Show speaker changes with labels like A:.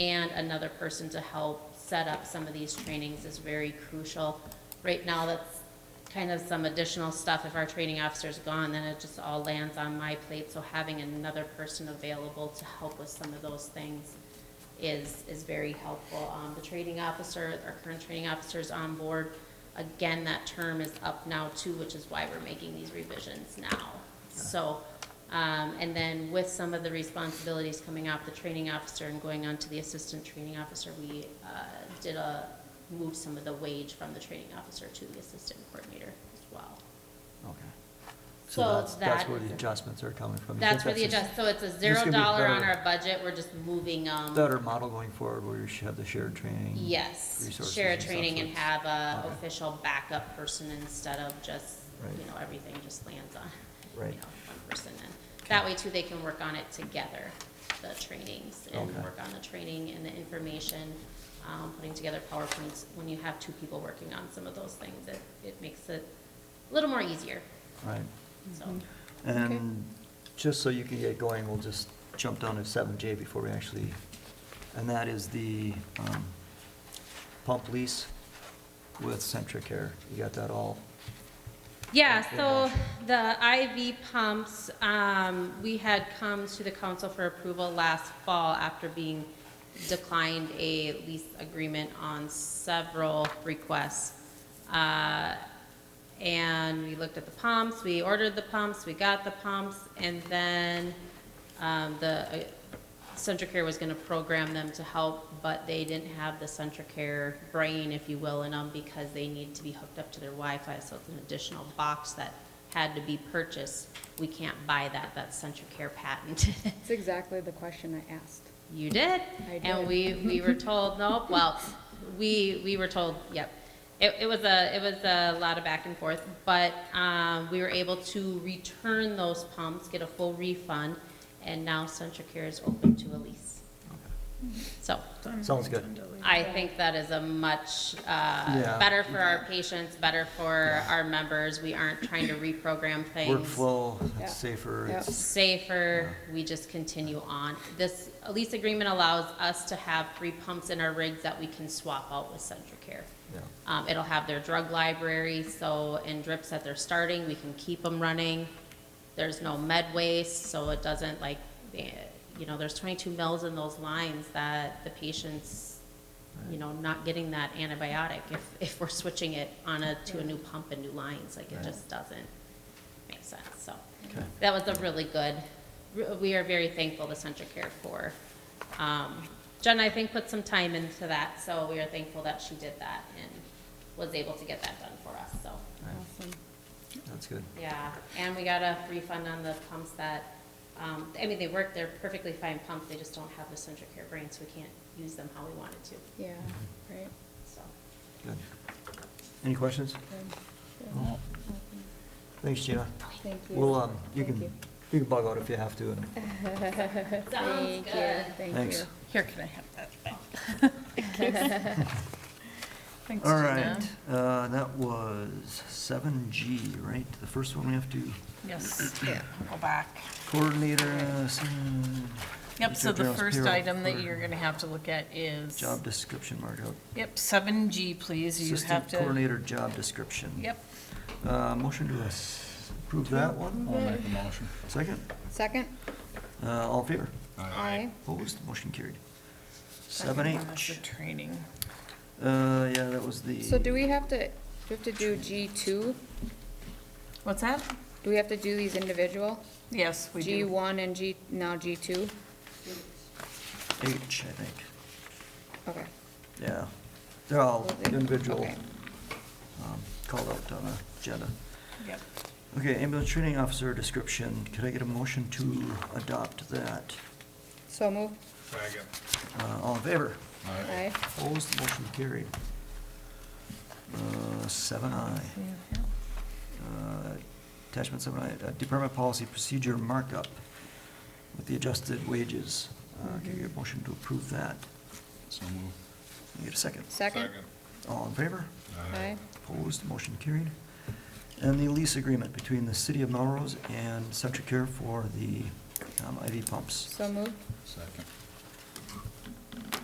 A: and another person to help set up some of these trainings is very crucial. Right now, that's kind of some additional stuff. If our training officer's gone, then it just all lands on my plate. So having another person available to help with some of those things is, is very helpful. Um, the training officer, our current training officer is on board. Again, that term is up now too, which is why we're making these revisions now. So, um, and then with some of the responsibilities coming off the training officer and going on to the assistant training officer, we, uh, did a, move some of the wage from the training officer to the assistant coordinator as well.
B: Okay.
A: So
B: So that's, that's
A: that
B: where
A: is
B: the
A: a-
B: adjustments are coming from. You
A: That's
B: think
A: where the
B: just
A: adjust, so it's a
B: gonna
A: zero
B: be
A: dollar on
B: better.
A: our budget, we're just moving, um.
B: Better model going forward where you should have the shared training.
A: Yes,
B: resources
A: share a
B: and stuff
A: training and
B: that's-
A: have a
B: Okay.
A: official backup person instead of just,
B: Right.
A: you know, everything just lands on, you know,
B: Right.
A: one person. And That way too, they can work on it together, the trainings, and
B: Okay.
A: work on the training and the information, um, putting together PowerPoints. When you have two people working on some of those things, it, it makes it a little more easier,
B: Right.
A: so.
B: Mm-hmm. And just so you can get going, we'll just jump down to seven J before we actually, and that is the um, pump lease with Centricare. You got that all?
A: Yeah,
B: Okay.
A: so the IV pumps, um, we had come to the council for approval last fall after being declined a lease agreement on several requests. Uh, and we looked at the pumps, we ordered the pumps, we got the pumps, and then, um, the, uh, Centricare was gonna program them to help, but they didn't have the Centricare brain, if you will, in them because they needed to be hooked up to their Wi-Fi, so it's an additional box that had to be purchased. We can't buy that, that's Centricare patented.
C: That's exactly the question I asked.
A: You did.
C: I
A: And
C: did.
A: we, we were told, nope, well, we, we were told, yep. It, it was a, it was a lot of back and forth, but, um, we were able to return those pumps, get a full refund, and now Centricare is open to a lease. So,
B: Sounds good.
A: I think that is a much, uh,
B: Yeah.
A: better for our patients, better for our members. We aren't trying to reprogram things
B: Workflow,
C: Yeah.
B: it's safer,
C: Yeah.
B: it's,
A: safer, we just continue on. This lease agreement allows us to have three pumps in our rigs that we can swap out with Centricare.
B: yeah,
A: Um, it'll have their drug library, so in drips that they're starting, we can keep them running. There's no med waste, so it doesn't like, eh, you know, there's twenty-two mils in those lines that the patient's, you know, not getting that antibiotic if, if we're switching it on a, to a new pump and new lines, like it
B: Right.
A: just doesn't make sense, so.
B: okay.
A: That was a really good, we are very thankful to Centricare for, um, Jen, I think, put some time into that, so we are thankful that she did that and was able to get that done for us, so,
B: All right,
C: Awesome.
B: That's good.
A: yeah. And we got a refund on the pumps that, um, I mean, they work, they're perfectly fine pumps, they just don't have the Centricare brand, so we can't use them how we wanted to,
C: Yeah, right.
A: so.
B: Good. Any questions?
C: Good.
B: No. Thanks, Gina.
C: Thank you.
B: Well, um, you
C: Thank
B: can, you can bug out if you have to, and
A: Sounds
C: Thank you,
A: good.
C: Thank
B: thanks.
C: you.
D: Here, can I have that back? Thanks,
B: All
D: Gina.
B: right, uh, that was seven G, right? The first one we have to,
D: Yes, here, I'll go back.
B: coordinator, uh, s-
D: Yep, so the
B: Mr. General's
D: first
B: payroll
D: item that
B: for
D: you're gonna have to look at is,
B: job description, mark out.
D: yep, seven G, please, you have
B: Assistant
D: to.
B: coordinator job description.
D: Yep,
B: Uh, motion to us- approve that one.
E: I'll make a motion.
B: Second,
C: Second?
B: uh, all in favor?
C: Aye.
B: Opposed, motion carried. Seven
D: second one was the
B: H,
D: training.
B: uh, yeah, that was the.
C: So do we have to, do we have to do G two?
D: What's that?
C: Do we have to do these individual?
D: Yes, we
C: G
D: do.
C: one and G, now G two?
B: H, I think,
C: Okay.
B: yeah. They're all
C: Okay.
B: individual,
C: Okay.
B: um, called out on the agenda.
D: Yep.
B: Okay, ambulance training officer description, could I get a motion to adopt that?
C: So move.
E: Second.
B: Uh, all in favor?
C: Aye.
B: Opposed, motion carried. Uh, seven I. Uh, Attachment seven I, uh, department policy procedure markup with the adjusted wages. Uh, Can I get a motion to approve that?
E: So move.
B: Can I Get a second.
C: Second?
B: All in favor?
C: Aye.
B: Opposed, motion carried. And the lease agreement between the city of Melrose and Centricare for the um, IV pumps.
C: So move.
E: Second.